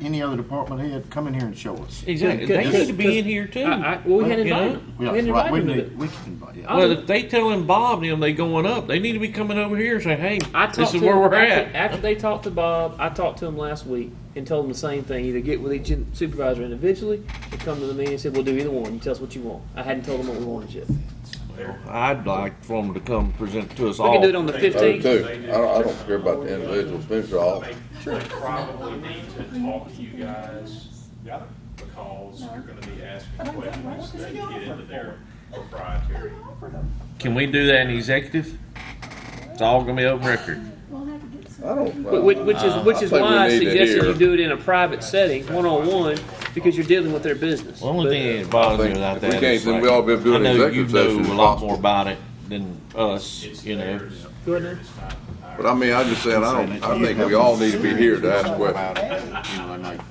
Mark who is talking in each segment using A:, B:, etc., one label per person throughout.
A: any other department head, come in here and show us.
B: Exactly.
C: Yeah,
B: They
C: 'cause-
B: need to be
C: 'cause-
B: in here too.
C: I, I, well, we had
B: You know?
C: invited them.
A: Yeah,
C: we had
A: right,
C: invited
A: we
C: them to
A: need-
C: that.
A: We can invite, yeah.
B: Well, if they telling Bob and them they going up, they need to be coming over here and say, "Hey,
C: I talked
B: this is
C: to
B: where
C: him
B: we're
C: after,
B: at."
C: After they talked to Bob, I talked to him last week and told him the same thing. Either get with each in- supervisor individually or come to the meeting and said, we'll do either one. You tell us what you want. I hadn't told them what we wanted yet.
B: I'd like for them to come present to us
C: We
B: all.
C: can do it on the
D: I do
C: 15th.
D: too. I don't, I don't care about the individuals, these are all,
E: They they probably need to talk to you guys because you're gonna be asking questions that get into their proprietary.
B: Can we do that in executive? It's all gonna be open record.
F: We'll have to get some.
D: I don't. uh,
C: Wh- Which, which is, which is
D: I think we
C: why I
D: need to
C: suggested you
D: hear.
C: do it in a private setting, one-on-one, because you're dealing with their business.
B: The only thing that bothers me
D: I think
B: about
D: if we
B: that
D: can't,
B: is
D: then
B: like,
D: we ought to be doing
B: I know you
D: executive session
B: know
D: if
B: a lot
D: possible.
B: more about it than us.
E: It's
B: you know,
E: theirs.
C: Go ahead now.
E: It's not ours.
D: But I mean, I just said, I don't, I think we all need to be here to ask questions.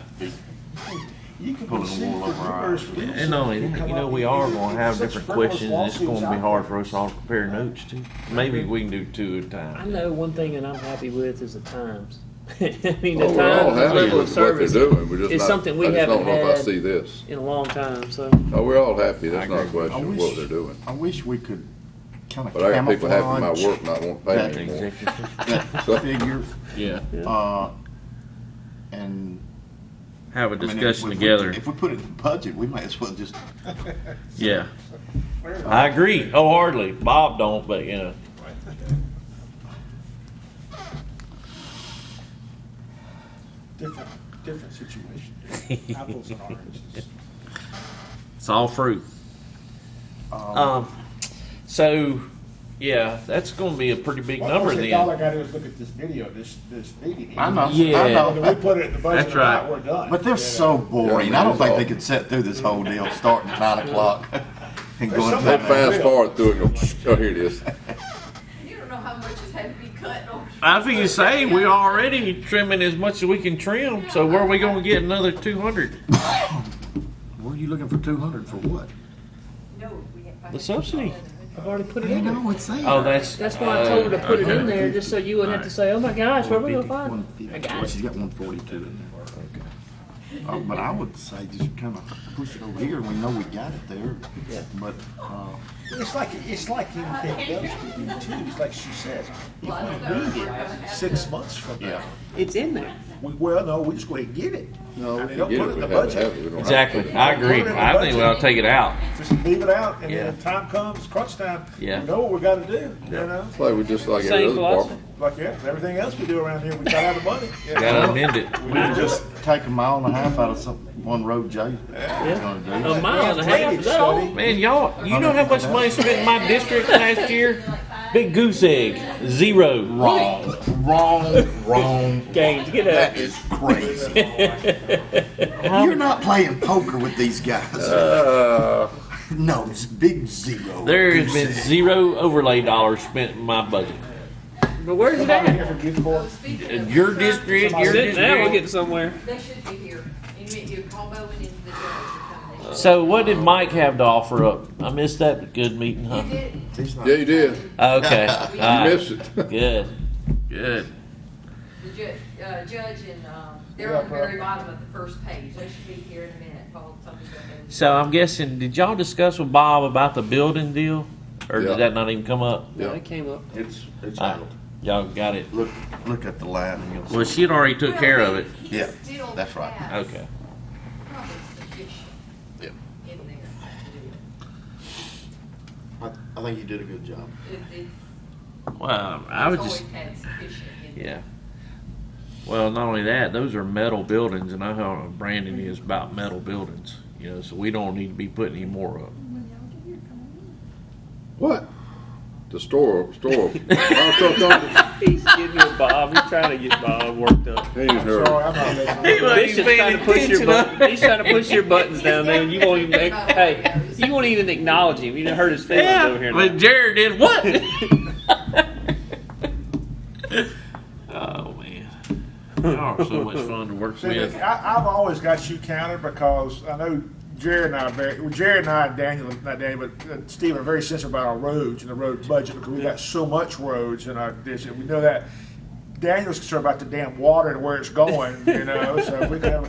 A: You can proceed with yours.
B: and not only that, you know, we are gonna have different questions. and It's gonna be hard for us all to compare notes to. Maybe we can do two at a
C: I
B: time.
C: know one thing that I'm happy with is the times. I mean, the
D: Well, Oh, we're all
C: times, the level of
D: happy with what they're
C: service
D: doing, we're
C: is
D: just not,
C: something we
D: I just
C: haven't
D: don't know if I
C: had
D: see this.
C: in a long time, so.
D: No, we're all happy, that's not a
A: I
D: question of
A: wish-
D: what they're doing.
A: I wish we could kind of
D: But I got people happy with my
A: camouflage
D: work not wanting to pay me anymore.
B: Executive.
A: that figure,
B: Yeah.
A: uh, and.
B: Have a
A: I mean, if
B: discussion
A: we-
B: together.
A: If we put it in budget, we might as well just,
B: Yeah. I agree wholeheartedly. Bob don't, but you know.
G: different, different situation. Apples and oranges.
B: It's all fruit. Um, so, yeah, that's going to be a pretty big
G: Well,
B: number
G: of course,
B: then.
G: All I gotta do is look at this video, this, this meeting.
A: I know,
B: Yeah.
A: I
G: And we
A: know,
G: put it in the budget,
B: That's
G: and now
B: right.
G: we're done.
A: but they're so boring. I don't think they could sit through this whole deal, starting at nine o'clock and going to
D: They
A: that.
D: fast forward through it, and go, oh, here it is.
H: You don't know how much has had to be cut or.
B: I think you say we're already trimming as much as we can trim, so where are we going to get another 200?
A: What are you looking for two hundred for what?
H: No, we had.
B: The subsidy.
C: I've already put it
A: You
C: in there.
A: know, it's there.
B: Oh, that's.
C: That's why I told her to put it
B: okay.
C: in there, just so you wouldn't have to say, oh my gosh, where are we gonna
A: 150,
C: find it?
A: 150.
C: I got
A: Well,
C: it.
A: she's got one forty-two in there. Uh, but I would say just kind of push it over here, we know we got it there,
C: Yeah.
A: but, uh,
G: It's like, it's like anything else we do too, it's like she says, if we need it six months from now,
A: yeah.
C: It's in there.
G: we, well, no, we just go ahead and get it. No. They don't
D: Get it,
G: put it in
D: we
G: the
D: have it, have it,
G: budget,
D: we don't have it.
B: Exactly. I agree. I think we ought to take it out.
G: just leave it out, and then
B: Yeah.
G: when time comes, crunch time, we
B: Yeah.
G: know what we gotta do, you
B: Yeah.
G: know?
D: Play with just like every
C: Same
D: other
C: philosophy.
D: department.
G: Like, yeah, everything else we do around here, we got out of money.
B: Got to amend it.
A: We could just take a mile and a half out of some, one road, Jay. Gonna do.
C: A mile and a half, is that all?
B: Man, y'all, you know how much money spent in my district last year? Big goose egg, zero.
A: Wrong, wrong, wrong.
C: Gaines, get
A: That
C: up.
A: is crazy. You're not playing poker with these guys.
D: Uh,
A: No, it's big zero.
B: There has been zero overlay dollars spent in my budget.
C: But where's it
G: Somebody here
C: at?
G: from Newport,
H: Speaking
B: And
H: of.
B: Your district, your
C: Sit now, we're
B: district.
C: getting somewhere.
H: They should be here. And you- you call Bowen and the judge will come. They should-
B: So what did Mike have to offer up? I missed that good meeting, huh?
H: He did.
D: yeah, you did. You
B: Okay. All right.
D: missed it.
B: Good. Good.
H: The ju- uh, judge and, um, they're
G: Yeah,
H: on the very
G: bro.
H: bottom of the first page. They should be here in a minute. Paul, tell me what they-
B: So I'm guessing, did y'all discuss with Bob about the building deal? Or
D: Yeah.
B: did that not even come up?
C: No,
D: Yeah.
C: it came up.
A: It's, it's
B: All right. Y'all got it.
A: Look, look at the line and you'll see.
B: Well, she had already took care of it.
H: He
A: Yeah,
H: still
A: that's right.
H: has
B: Okay.
H: probably sufficient
A: Yeah.
H: in there to do
A: I, I think you did a good job.
H: it. It- It's,
B: Well, I
H: it's
B: would just,
H: always had sufficient in
B: yeah.
H: there.
B: Well, not only that, those are metal buildings and I know how Brandon is about metal buildings, you know, so we don't need to be putting any more up.
F: When y'all get here, come on in.
D: What? The store, store. Oh, so- so-
C: He's getting you Bob, he's trying to get Bob worked up.
D: He ain't heard.
G: sorry, I'm not listening.
C: Bishop's trying to push your buttons. He's trying to push your buttons down there. and You won't even. Hey, you won't even acknowledge him. You done hurt his feelings
B: Yeah,
C: over here.
B: but
C: now.
B: Jared did what? oh man, y'all are so much fun to work
G: See,
B: with.
G: I, I've always got you counted because I know Jared and I, are very, well, Jared and I, and Daniel, not Daniel, but uh, Steve are very sensitive about our roads and the road budget because we got so much roads in our district. We know that. Daniel's concerned about the damn water and where it's going, you know, so if we could have a